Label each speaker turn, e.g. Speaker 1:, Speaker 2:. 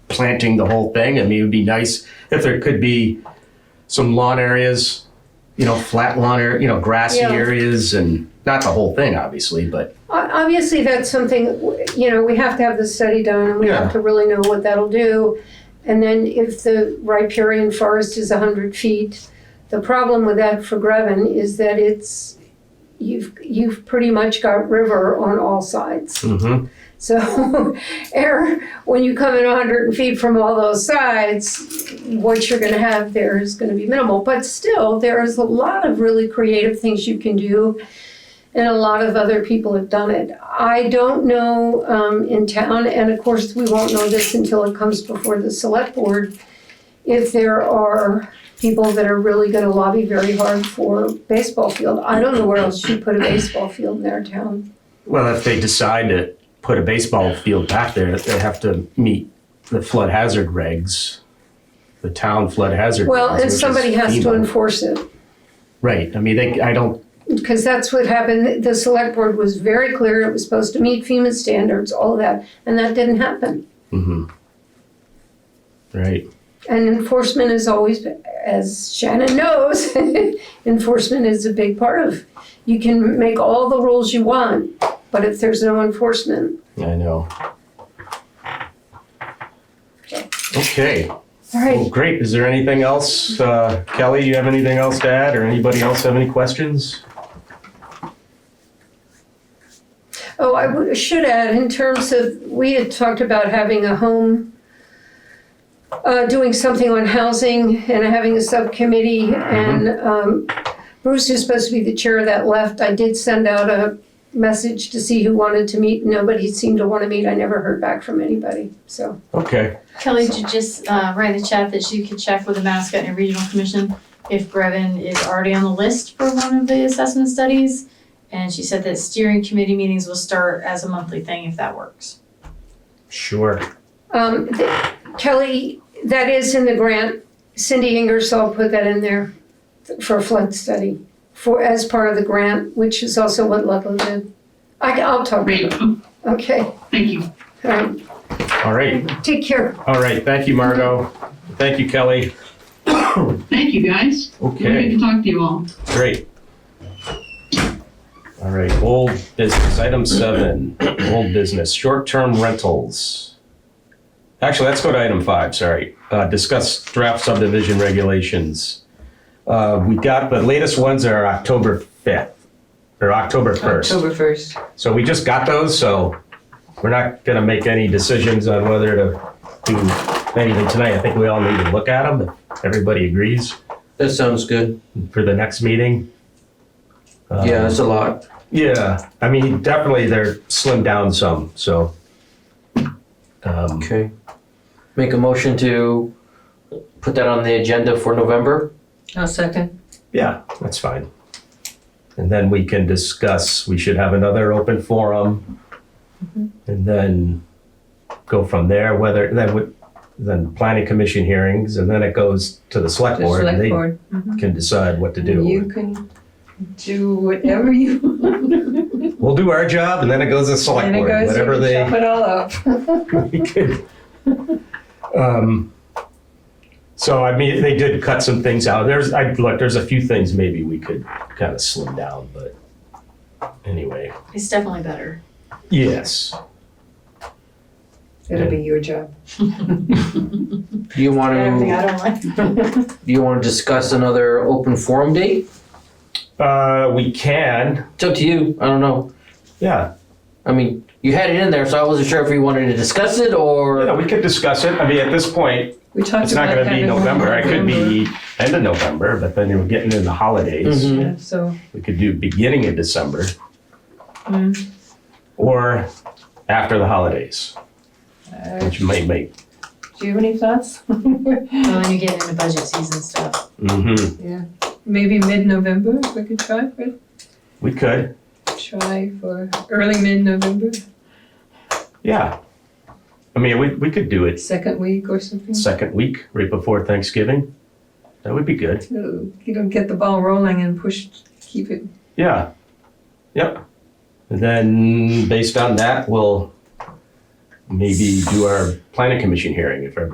Speaker 1: planting the whole thing. I mean, it would be nice if there could be some lawn areas, you know, flat lawn area, you know, grassy
Speaker 2: Yeah.
Speaker 1: areas and not the whole thing, obviously, but
Speaker 2: O- Obviously, that's something, you know, we have to have the study done, and we
Speaker 1: Yeah.
Speaker 2: have to really know what that'll do. And then if the riparian forest is hundred feet, the problem with that for Greven is that it's, you've, you've pretty much got river on all sides.
Speaker 1: Mhm.
Speaker 2: So, air, when you come in hundred feet from all those sides, what you're gonna have there is gonna be minimal. But still, there is a lot of really creative things you can do and a lot of other people have done it. I don't know um, in town, and of course, we won't know this until it comes before the select board, if there are people that are really going to lobby very hard for baseball field. I don't know where else you put a baseball field in their town.
Speaker 1: well, if they decide to put a baseball field back there, they have to meet the flood hazard regs, the town flood hazard.
Speaker 2: Well,
Speaker 1: regs,
Speaker 2: and
Speaker 1: which is
Speaker 2: somebody has to
Speaker 1: FEMA.
Speaker 2: enforce it.
Speaker 1: Right. I mean, they, I don't,
Speaker 2: because that's what happened. The select board was very clear it was supposed to meet FEMA standards, all of that, and that didn't happen.
Speaker 1: mm-hmm. right.
Speaker 2: And enforcement is always, as Shannon knows, enforcement is a big part of. You can make all the rules you want, but if there's no enforcement,
Speaker 1: I know. Okay.
Speaker 2: all
Speaker 1: Well,
Speaker 2: right.
Speaker 1: great. Is there anything else? Uh, Kelly, you have anything else to add or anybody else have any questions?
Speaker 2: Oh, I would- should add, in terms of, we had talked about having a home, uh, doing something on housing and having a subcommittee, and um, Bruce is supposed to be the chair of that left. I did send out a message to see who wanted to meet. Nobody seemed to want to meet. I never heard back from anybody, so.
Speaker 1: Okay.
Speaker 3: Kelly, did you just uh, write in the chat that you could check with the Mascot and Regional Commission if Brevin is already on the list for one of the assessment studies. And she said that steering committee meetings will start as a monthly thing if that works.
Speaker 1: Sure.
Speaker 2: Um, th- Kelly, that is in the grant. Cindy Ingersoll put that in there for a flood study, for, as part of the grant, which is also what Ludlow did. I, will talk to
Speaker 4: Great, Oh,
Speaker 2: her. Okay, all
Speaker 4: thank you.
Speaker 2: right.
Speaker 1: All right.
Speaker 2: Take care.
Speaker 1: All right. Thank you, Margot. Thank you, Kelly.
Speaker 4: Thank you, guys. Good
Speaker 1: Okay.
Speaker 4: to talk to you all.
Speaker 1: Great. All right. Old business. Item seven. Old business. Short-term rentals. Actually, let's go to item five. Sorry. Uh, discuss draft subdivision regulations. Uh, we got the latest ones are October fifth or October first.
Speaker 5: October first.
Speaker 1: So we just got those, so we're not gonna make any decisions on whether to do anything tonight. I think we all need to look at them. if Everybody agrees
Speaker 6: That sounds good.
Speaker 1: for the next meeting. Uh,
Speaker 6: Yeah, that's a lot.
Speaker 1: Yeah, I mean, definitely they're slimmed down some, so. Um,
Speaker 6: Okay. Make a motion to put that on the agenda for November.
Speaker 5: I'll second.
Speaker 1: yeah, that's fine. And then we can discuss, we should have another open forum.
Speaker 5: Mm-hmm.
Speaker 1: And then go from there, whether, then would, then planning commission hearings, and then it goes to the
Speaker 5: The
Speaker 1: select board. and
Speaker 5: select
Speaker 1: They
Speaker 5: board.
Speaker 1: can decide what to
Speaker 5: You
Speaker 1: do.
Speaker 5: can do whatever you want.
Speaker 1: We'll do our job, and then it goes to the select
Speaker 5: And it
Speaker 1: board,
Speaker 5: goes, you
Speaker 1: whatever
Speaker 5: can
Speaker 1: they.
Speaker 5: chop it all up.
Speaker 1: Um, So, I mean, they did cut some things out. There's, I, look, there's a few things maybe we could kind of slim down, but anyway,
Speaker 3: It's definitely better.
Speaker 1: yes.
Speaker 5: It'll be your job.
Speaker 6: Do you want
Speaker 3: Everything
Speaker 6: to,
Speaker 3: I don't like.
Speaker 6: do you want to discuss another open forum date?
Speaker 1: Uh, we can,
Speaker 6: It's up to you. I don't know.
Speaker 1: yeah,
Speaker 6: I mean, you had it in there, so I wasn't sure if you wanted to discuss it
Speaker 1: yeah,
Speaker 6: or.
Speaker 1: we could discuss it. I mean, at this point,
Speaker 5: We talked
Speaker 1: it's not
Speaker 5: about
Speaker 1: gonna be
Speaker 5: having
Speaker 1: November.
Speaker 5: one
Speaker 1: It could
Speaker 5: November.
Speaker 1: be end of November, but then you're getting into the holidays.
Speaker 6: Mhm.
Speaker 5: Yeah, So,
Speaker 1: We could do beginning of December
Speaker 5: mm,
Speaker 1: or after the holidays,
Speaker 5: uh,
Speaker 1: which might make,
Speaker 5: do you have any thoughts?
Speaker 3: Well, When you get into budget season stuff.
Speaker 1: mhm,
Speaker 5: Maybe mid-November, if we could try for,
Speaker 1: we could,
Speaker 5: try for early mid-November,
Speaker 1: yeah. I mean, we, we could do it
Speaker 5: second week or something.
Speaker 1: second week, right before Thanksgiving. That would be good.
Speaker 5: So You don't get the ball rolling and push, keep it,
Speaker 1: Yeah. Yep. And then based on that, we'll maybe do our planning commission hearing if everybody